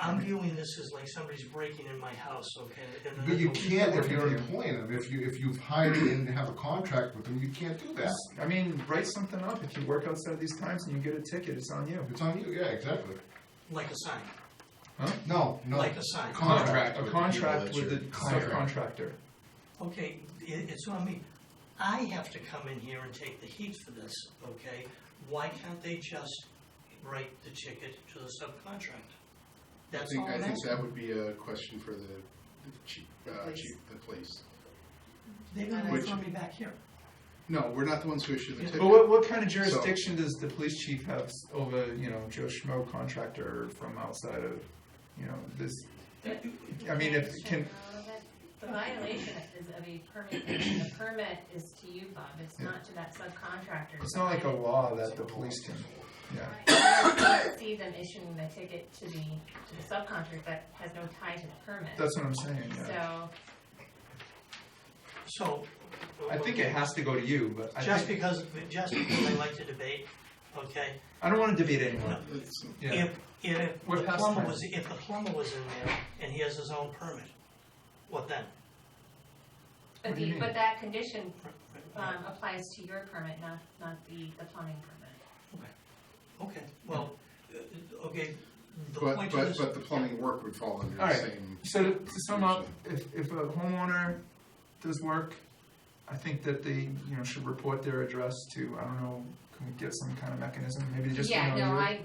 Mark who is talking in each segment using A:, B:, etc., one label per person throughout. A: I'm viewing this as like somebody's breaking in my house, okay? and then
B: But you
A: I'm-
B: can't if you're employing them, if you, if you've hired and have a contract with them, you can't do that.
C: I mean, write something up. If you work outside these times and you get a ticket, it's on you.
B: It's on you, yeah, exactly.
A: Like a sign,
B: No, no.
A: like a sign.
B: Contract
C: A
B: with the
C: contract
D: people
C: with
D: that
C: the
B: you're
C: subcontractor.
A: Okay, it, it's on me. I have to come in here and take the heat for this, okay? Why can't they just write the ticket to the subcontractor?
D: I
A: That's all
D: think, I
A: I'm
D: think
A: asking.
D: that would be a question for the the chief, uh, chief, the police.
A: They're gonna
D: Which-
A: throw me back here.
D: No, we're not the ones who issue the
A: Yeah.
C: But
D: ticket.
C: what, what kind of jurisdiction does the police chief have s- over, you know, Joe Schmo contractor from outside of, you know, this? I mean, if, can,
E: The violation is of a permit, and the permit is to you, Bob, it's
C: Yeah.
E: not to that subcontractor.
C: it's not like a law that the police can, yeah.
E: Right. I don't See them issuing the ticket to the, to the subcontractor that has no tie to the permit,
C: That's what I'm saying, yeah.
E: so,
A: So.
C: I think it has to go to you, but I
A: Just
C: think,
A: because, just because I like to debate, okay?
C: I don't wanna debate anyone,
D: It's-
C: yeah.
A: If, if
C: We're
A: the
C: past
A: plumber
C: time.
A: was, if the plumber was in there and he has his own permit, what then?
C: What
E: but
C: do you
E: the,
C: mean?
E: but that condition,
A: Uh,
E: um, applies to your permit, not, not the, the plumbing permit.
A: Okay, well, uh, okay, the
D: But,
A: point
D: but,
A: is,
D: but the plumbing work would fall under
C: All
D: the
C: right.
D: same.
C: So to, to sum up, if, if a homeowner does work, I think that they, you know, should report their address to, I don't know, can we get some kind of mechanism, maybe just, you know,
E: Yeah, no,
C: you-
E: I,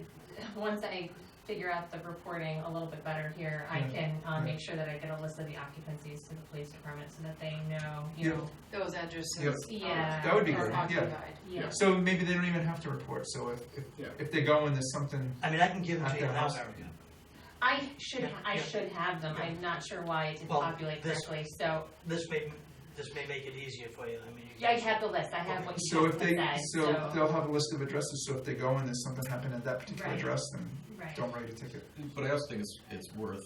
E: once I figure out the reporting a little bit better here, I
C: Yeah,
E: can,
C: yeah.
E: um, make sure that I get a list of the occupancies to the police department so that they know, you
C: Yeah.
E: know,
F: those addresses.
C: Yep.
E: Yeah.
C: That would be
F: are
C: great, yeah.
F: occupied.
E: yeah.
C: So maybe they don't even have to report, so if,
D: Yeah.
C: if, if they go and there's something,
A: I mean, I can give it to you
C: At the
A: now,
C: house.
A: Erica.
E: I should,
A: Yeah,
E: I
A: yeah.
E: should have them,
A: Yeah.
E: I'm not sure why it didn't
A: Well,
E: populate
A: this-
E: correctly, so,
A: This may, this may make it easier for you, I mean. you
E: yeah, I
A: guys-
E: have the list, I have what
C: so
E: you
C: if
E: just
C: they,
E: said,
C: so
E: so,
C: they'll have a list of addresses, so if they go and there's something happened at that particular
E: Right.
C: address, then
E: right,
C: don't write a ticket.
G: But I also think it's, it's worth,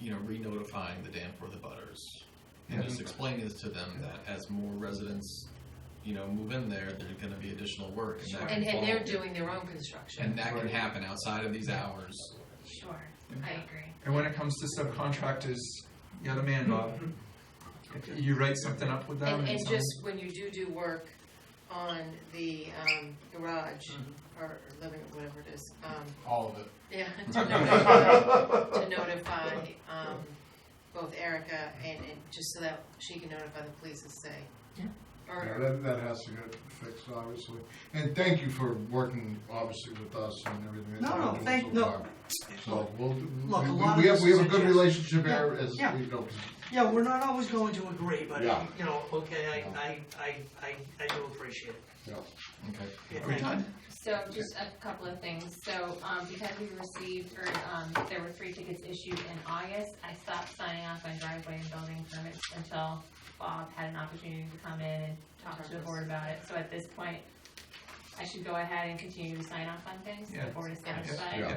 G: you know, re-notifying the Danforth abutters and
C: Yeah.
G: just explaining this to them that as more residents, you know, move in there, there's gonna be additional work and that can
F: And, and
G: fall-
F: they're doing their own construction.
G: And that can
C: Right.
G: happen outside of these hours.
E: sure, I agree.
C: And when it comes to subcontractors, you're the man, Bob.
E: Mm-hmm.
C: If You write something up with them
F: And,
C: and
F: and
C: some-
F: just when you do do work on the, um, garage
A: Mm-hmm.
F: or or living, room, whatever it is, um,
D: All of it.
F: yeah, to notify, to notify, um, both Erica and, and just so that she can notify the police and say.
B: Yeah,
F: Or,
B: that, that has to get fixed, obviously. And thank you for working, obviously, with us and everything. that
A: No,
B: you're
A: no,
B: doing
A: thank-
B: so
A: no.
B: far. So, we'll, we,
A: Look, a lot
B: we- we
A: of
B: have,
A: this
B: we
A: is
B: have a good
A: just-
B: relationship here as,
A: yeah.
B: you know,
A: Yeah, we're not always going to agree, but,
B: Yeah.
A: you know, okay,
B: Yeah.
A: I, I, I, I, I do appreciate it.
G: Okay.
A: Yeah,
C: Are we
A: thank you.
C: done?
E: So just a couple of things, so, um, because we received, or, um, there were three tickets issued in August, I stopped signing off on driveway and building permits until Bob had an opportunity to come in and talk to the board about it, so at this point, I should go ahead and continue to sign off on things,
C: Yeah.
E: the board is
F: Yeah.
E: satisfied.
B: Yeah.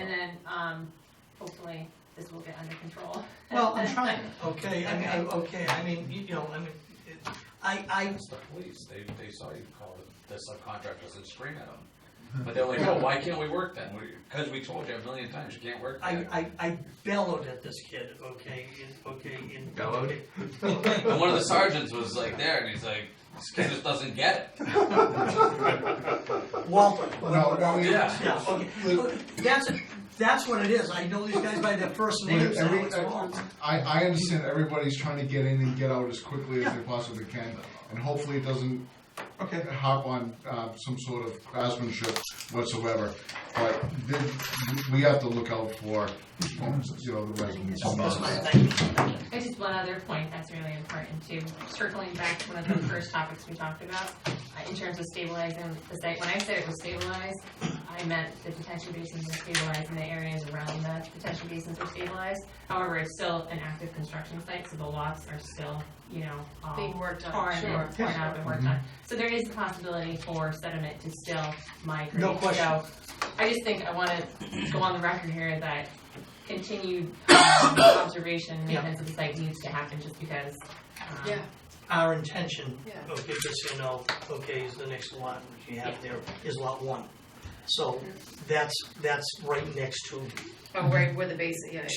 E: And then, um, hopefully, this will get under control.
A: Well, I'm trying, okay, I mean, I- okay, I mean, you know, I mean, it- I, I,
H: It's the police, they, they saw you call the, the subcontractors and scream at them. But they're like, oh, why can't we work then? Because we told you a million times you can't work
A: I,
H: then.
A: I, I bellowed at this kid, okay, in- okay, in.
C: Bellowed?
H: And one of the sergeants was like there and he's like, this kid just doesn't get it.
A: Walter.
B: No, no, we-
H: Yeah.
A: Yeah, okay, that's, that's what it is, I know these guys by their first names now,
B: Every-
A: it's Walter.
B: I, I understand everybody's trying to get in and get out as quickly as they possibly can, and hopefully it doesn't
C: Okay.
B: hop on uh, some sort of craftsmanship whatsoever. But th- we have to look out for, you know, the residents.
A: That's my thing.
E: There's just one other point that's really important too, circling back to one of the first topics we talked about, uh, in terms of stabilizing the site. When I said it was stabilized, I meant the detention basins were stabilized and the areas around the detention basins were stabilized. However, it's still an active construction site, so the lots are still, you know, all
F: being worked on.
E: torn
F: Sure.
E: and torn up and worked on. So there is the possibility for sediment to still migrate.
A: No question.
E: So I just think I wanna go on the record here that continued um, observation,
A: Yeah.
E: maintenance of the site needs to happen just because. um,
F: Yeah,
A: Our intention,
F: yeah.
A: okay, just so you know, okay, is the next lot, which you have there, is lot one.
I: So that's, that's right next to
A: But where, where the base, yeah,